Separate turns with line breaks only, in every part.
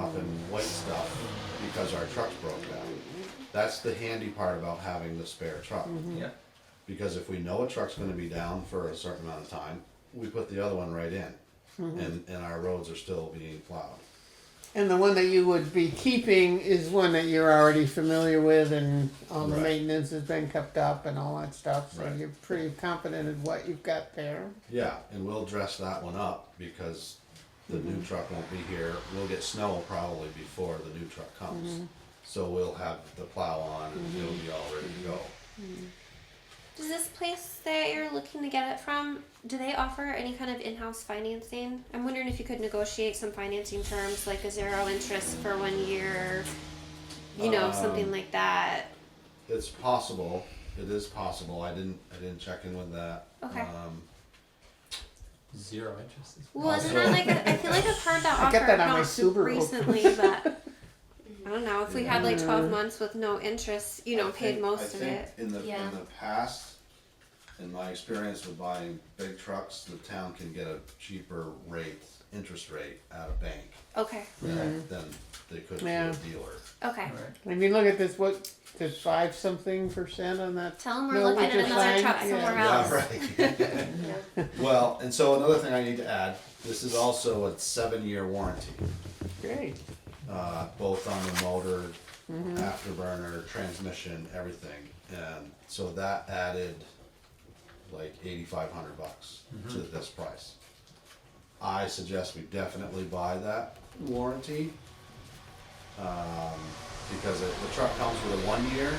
dropping white stuff because our trucks broke down. That's the handy part about having the spare truck.
Yeah,
Because if we know a truck's gonna be down for a certain amount of time, we put the other one right in. And, and our roads are still being plowed.
And the one that you would be keeping is one that you're already familiar with, and all the
Right.
maintenance has been kept up and all that stuff. So
Right.
you're pretty confident in what you've got there.
Yeah, and we'll dress that one up because the new truck won't be here. We'll get snow probably before the new truck comes. So we'll have the plow on and it'll be all ready to go.
Does this place that you're looking to get it from, do they offer any kind of in-house financing? I'm wondering if you could negotiate some financing terms, like a zero interest for one year, you know, something
Um,
like that.
It's possible, it is possible. I didn't, I didn't check in with that.
Okay.
Um,
zero interest. is-
Well, isn't that like a, I feel like I've heard that
I
offer
get that on my
not
Subaru.
recently, but I don't know if we had like 12 months with no interest, you know,
I
paid
think-
most
I
of
think
it.
In the
Yeah.
in the past, in my experience with buying big trucks, the town can get a cheaper rate, interest rate at a bank
Okay,
than, than they could through
Yeah.
a dealer.
okay.
Alright.
If you look at this, what there's five something percent on that.
Tell them we're
No,
looking
we
at
just
another
signed-
truck
yeah.
somewhere
Yeah,
else.
right. well, and so another thing I need to add: this is also a seven-year warranty,
Great.
uh, both on the motor, afterburner, transmission, everything, and so that added like eighty-five hundred bucks to this price. I suggest we definitely buy that warranty. Um, because it, the truck comes with a one year,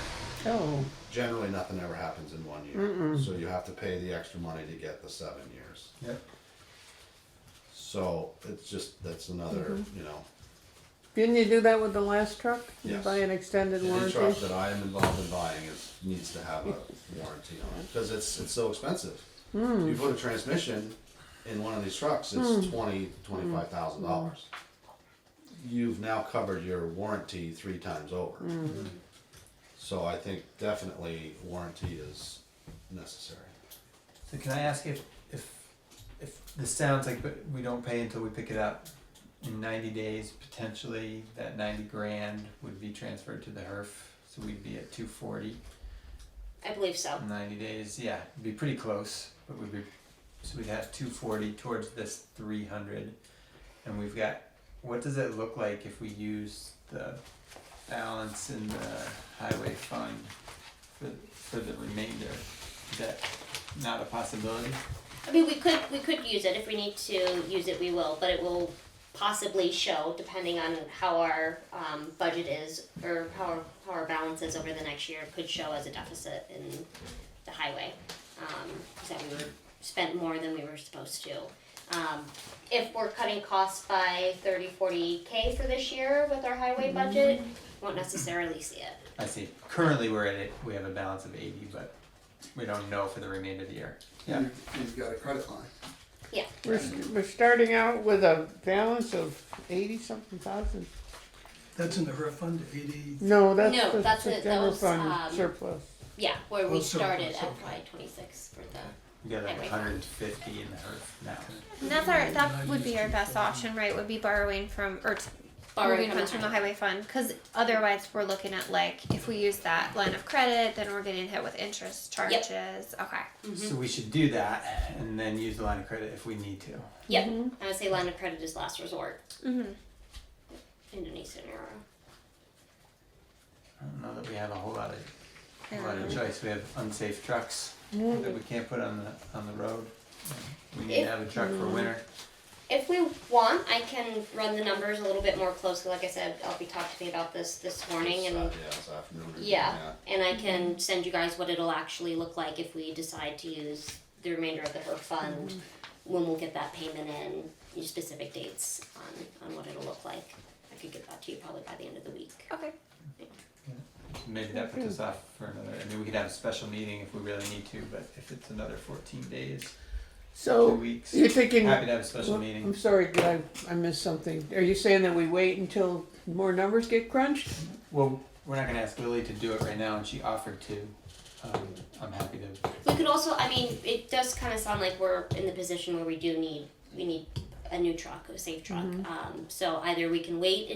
Oh,
generally nothing ever happens in one year. So you have to pay the extra money to get the seven years.
Yep.
So it's just, that's another, you know,
didn't you do that with the last truck? You
Yes.
buy an extended
any
warranty.
truck that I am involved in buying is, needs to have a warranty on it, cause it's, it's so expensive. You put a transmission in one of these trucks, it's twenty, twenty-five thousand dollars. You've now covered your warranty three times over.
Hmm. Mm-hmm.
So I think definitely warranty is necessary.
So can I ask if, if, if this sounds like but we don't pay until we pick it up, in ninety days, potentially, that ninety grand would be transferred to the HERF, so we'd be at two forty.
I believe so.
Ninety days, yeah, it'd be pretty close, but we'd be, so we'd have two forty towards this three hundred. And we've got, what does it look like if we use the balance in the highway fund for, for the remainder? Is that not a possibility?
I mean, we could we could use it if we need to use it. We will, but it will possibly show depending on how our um, budget is or how our, how our balance is over the next year. It could show as a deficit in the highway um, is that we were spent more than we were supposed to. Um, if we're cutting costs by 30, 40 k for this year with our highway budget, won't necessarily see it.
I see, currently we're at it, we have a balance of eighty, but we don't know for the remainder of the year. Yeah,
You've, you've got a credit line.
Yeah.
We're, we're starting out with a balance of eighty something thousand.
That's in the HERF fund, eighty,
No, that's
No,
the,
that's
the
it. That
general
was,
fund
um,
surplus.
Yeah, where we
Well, so-
started
so-
FY twenty six for the.
we got like
Highway fund.
hundred and fifty in the HERF now.
And that's our, that would be our best option, right? Would be borrowing from, or t- borrowing funds from the highway fund, because otherwise we're looking at like, if we use that line of credit, then we're getting hit with interest
Yep.
charges. Okay.
So we should do that and then use the line of credit if we need to.
Yep. I would say line of credit is last resort. Mm-hmm. Indonesian era.
I don't know that we have a whole lot of, a lot of
Um,
choice, we have unsafe trucks that we can't put on the, on the road. We need to
If-
have a truck for winter,
If we want, I can run the numbers a little bit more closely. Like I said, I'll be talking to me about this this morning,
This,
and
uh, Yeah, this afternoon. or-
yeah, and I can send you guys what it'll actually look like if we decide to use the remainder of the HERF fund. When we'll get that payment in, your specific dates on on what it'll look like. I could get that to you probably by the end of the week.
Okay.
maybe that puts us off for another, I mean, we could have a special meeting if we really need to, but if it's another fourteen days, two
So
weeks,
you're
happy
thinking.
to have a special
Oh. Well,
meeting.
I'm sorry, did I, I missed something. Are you saying that we wait until more numbers get crunched?
Well, we're not gonna ask Lily to do it right now and she offered to, um, I'm happy to,
We could also, I mean, it does kind of sound like we're in the position where we do need, we need a new truck, a safe truck. Um, so either we can wait and